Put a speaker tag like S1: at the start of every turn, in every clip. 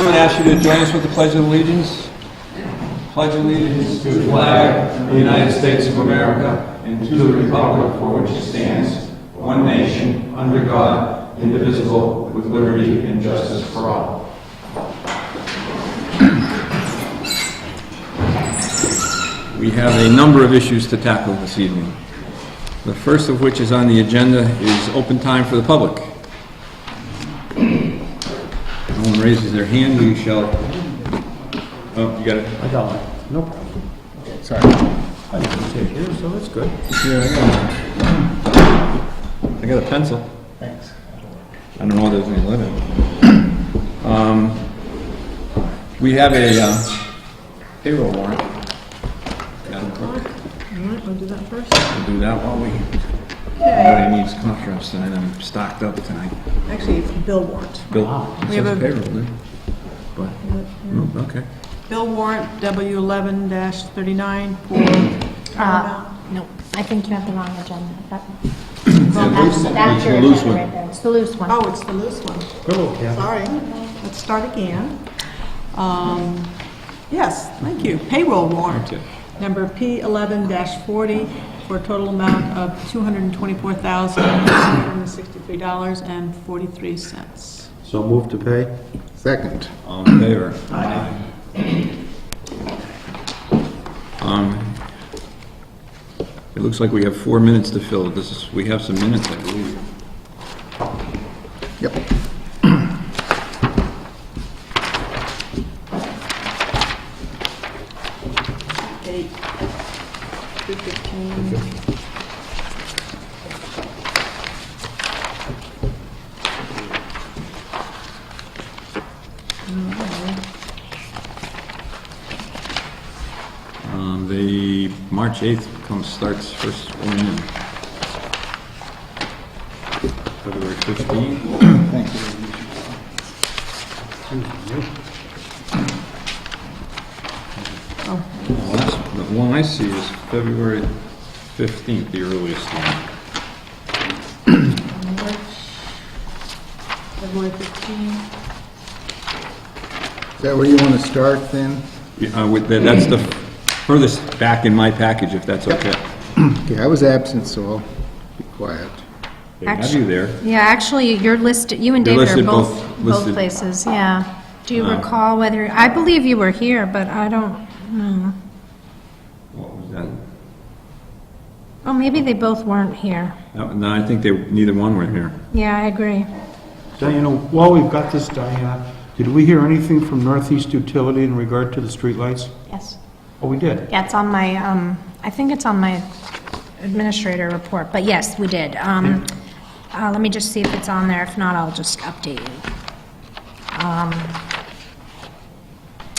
S1: ask you to join us with the Pledge of Allegiance. Pledge allegiance to the flag of the United States of America and to the republic for which it stands, one nation, under God, indivisible, with liberty and justice for all. We have a number of issues to tackle this evening. The first of which is on the agenda is open time for the public. No one raises their hand, we shall, oh, you got it?
S2: I got one. No problem. Sorry. I didn't take yours, so that's good.
S1: I got a pencil. Thanks. I don't know whether there's any limit. Um, We have a uh, payroll warrant. We'll
S3: All right, we'll do that first.
S1: do that while we,
S3: Okay,
S1: everybody needs contracts tonight, I'm stocked up tonight.
S3: actually, it's bill warrant.
S1: Bill, it
S3: We have
S1: says
S3: a-
S1: payroll, dude. But, mm, okay.
S3: Bill warrant W eleven thirty-nine for
S4: Uh,
S3: Paramount.
S4: no, I think you have the wrong agenda. That-
S1: loose
S4: That's
S1: one. It's
S4: that's
S1: the
S4: your
S1: loose
S4: agenda
S1: one.
S4: right there. It's the loose one.
S3: Oh, it's the loose one.
S2: Cool, yeah.
S3: Sorry. Let's start again. Um, Yes, thank you. Payroll warrant,
S1: Okay.
S3: number P eleven forty, for a total amount of two hundred and twenty-four thousand, one hundred and sixty-three dollars and forty-three cents.
S2: So move to pay?
S5: Second.
S1: All in favor? Aye. Um, It looks like we have four minutes to fill. This is, we have some minutes, I believe.
S5: Yep.
S3: Eight, two fifteen.
S1: Um, The March 8th comes, starts first one in. February 15th.
S5: Thank you.
S1: The last- The one I see is February 15th, the earliest one.
S3: March, February 15.
S5: Is that where you want to start then?
S1: Yeah, uh, with- that- That's the furthest back in my package, if that's okay.
S5: Okay, I was absent, so I'll be quiet.
S1: They have you there.
S4: Yeah, actually, you're listed, you and
S1: You're
S4: David are
S1: listed
S4: both,
S1: both- listed. Uh.
S4: both places, yeah. Do you recall whether, I believe you were here, but I don't, hmm. know.
S1: What was that?
S4: Oh, maybe they both weren't here.
S1: No, No, I think they, neither one were here.
S4: Yeah, I agree.
S2: Diana, while we've got this, Diana, did we hear anything from Northeast Utility in regard to the streetlights?
S4: Yes.
S2: Oh, we did.
S4: Yeah, it's on my, um, I think it's on my administrator report, but yes, we did. Um, uh, let me just see if it's on there. If not, I'll just update you. Um,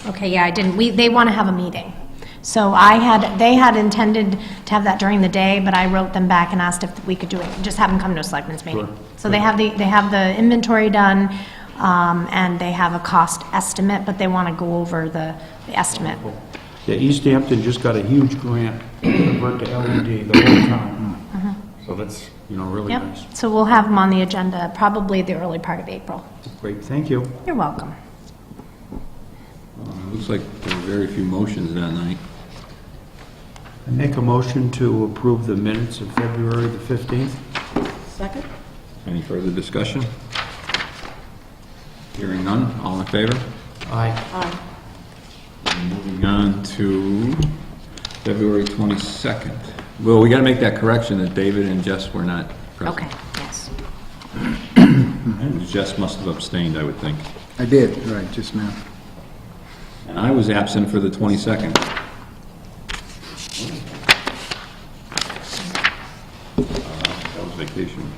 S4: okay, yeah, I didn't, we, they want to have a meeting. So I had, they had intended to have that during the day, but I wrote them back and asked if we could do it, just have them come to a selectmen's meeting. So they have the, they have the inventory done, um, and they have a cost estimate, but they want to go over the the estimate.
S2: Yeah, East Hampton just got a huge grant to convert to LED the whole town. So that's, you know, really nice.
S4: Yep, so we'll have them on the agenda probably the early part of April.
S2: Great, thank you.
S4: You're welcome.
S1: It Looks like there were very few motions that night.
S2: I Make a motion to approve the minutes of February the 15th.
S3: Second?
S1: Any further discussion? Hearing none, all in favor?
S2: Aye.
S1: Moving on to February 22nd. Well, we got to make that correction that David and Jess were not
S4: Okay,
S1: present.
S4: yes.
S1: Okay. Jess must have abstained, I would think.
S5: I did, right, just now.
S1: And I was absent for the Uh, 22nd. That was vacation.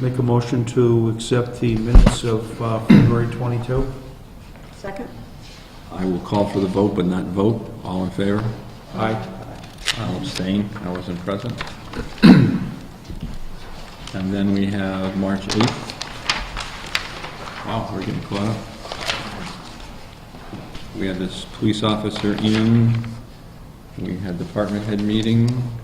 S2: Make a motion to accept the minutes of uh, February 22.
S3: Second?
S1: I will call for the vote, but not vote. All in favor?
S2: Aye.
S1: I'll abstain, I wasn't present. And then we have March 8th. Wow, we're getting caught up. We had this police officer in, we had department head meeting,